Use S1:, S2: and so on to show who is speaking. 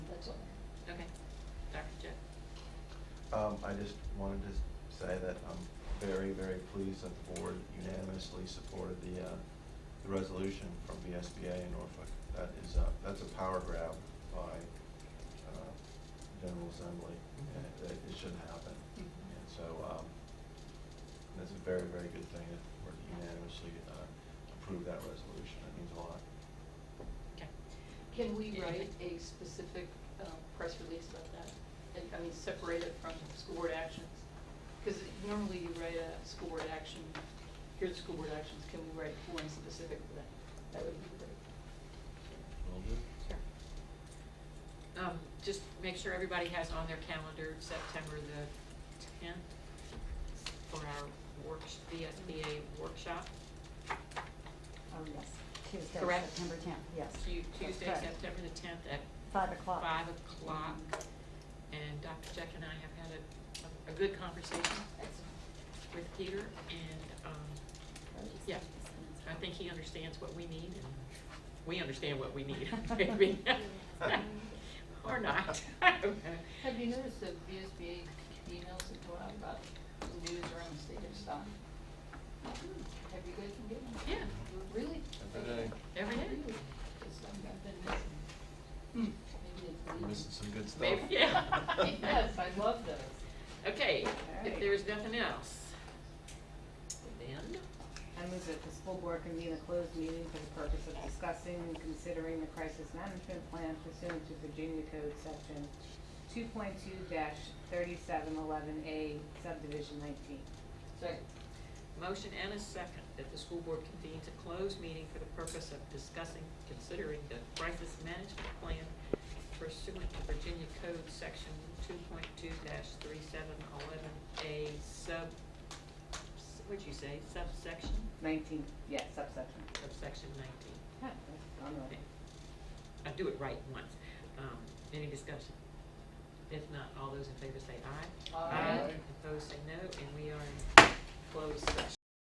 S1: Um, I just wanted to say that I'm very, very pleased that the board unanimously supported the, uh, the resolution from VSBA in Norfolk. That is, uh, that's a power grab by, uh, General Assembly, and it, it should happen. And so, um, that's a very, very good thing that we're unanimously, uh, approved that resolution. That means a lot.
S2: Okay.
S3: Can we write a specific uh, press release about that? And, I mean, separate it from school board actions? Because normally you write a school board action, here's school board actions, can we write one specific for that? That would be great.
S1: Will do.
S2: Sure. Um, just make sure everybody has on their calendar September the tenth for our works, VSBA workshop.
S4: Oh, yes, Tuesday,
S2: Correct.
S4: September tenth, yes.
S2: Tu-
S4: That's
S2: Tuesday,
S4: correct.
S2: September the tenth at
S4: Five o'clock.
S2: five o'clock. And Dr. Jack and I have had a, a good conversation with Peter and, um, Yeah. I think he understands what we need, and we understand what we need, maybe. Or not. I don't know.
S3: Have you noticed that VSBA emails that go out about news around the state of Stockton? Have you guys been getting them?
S2: Yeah,
S3: Really?
S1: Every day.
S2: every day.
S3: Really? It's something I've been missing. Maybe it's
S1: I'm
S3: leaving.
S1: Missing some good stuff.
S2: Maybe, yeah.
S3: Yes, I love those.
S2: Okay, if
S4: Alright.
S2: there's nothing else, then,
S4: I move that the school board convene a closed meeting for the purpose of discussing and considering the crisis management plan pursuant to Virginia Code Section two point two thirty-seven eleven A subdivision nineteen.
S3: Second.
S2: motion and a second that the school board convenes a closed meeting for the purpose of discussing, considering the crisis management plan pursuant to Virginia Code Section two point two three seven eleven A sub, what'd you say, subsection,
S4: Nineteen, yes, subsection.
S2: subsection nineteen.
S4: Huh, that's on the-
S2: Okay. I do it right once. Um, any discussion? If not, all those in favor say aye.
S3: Aye.
S2: Opposed say no, and we are in closed session.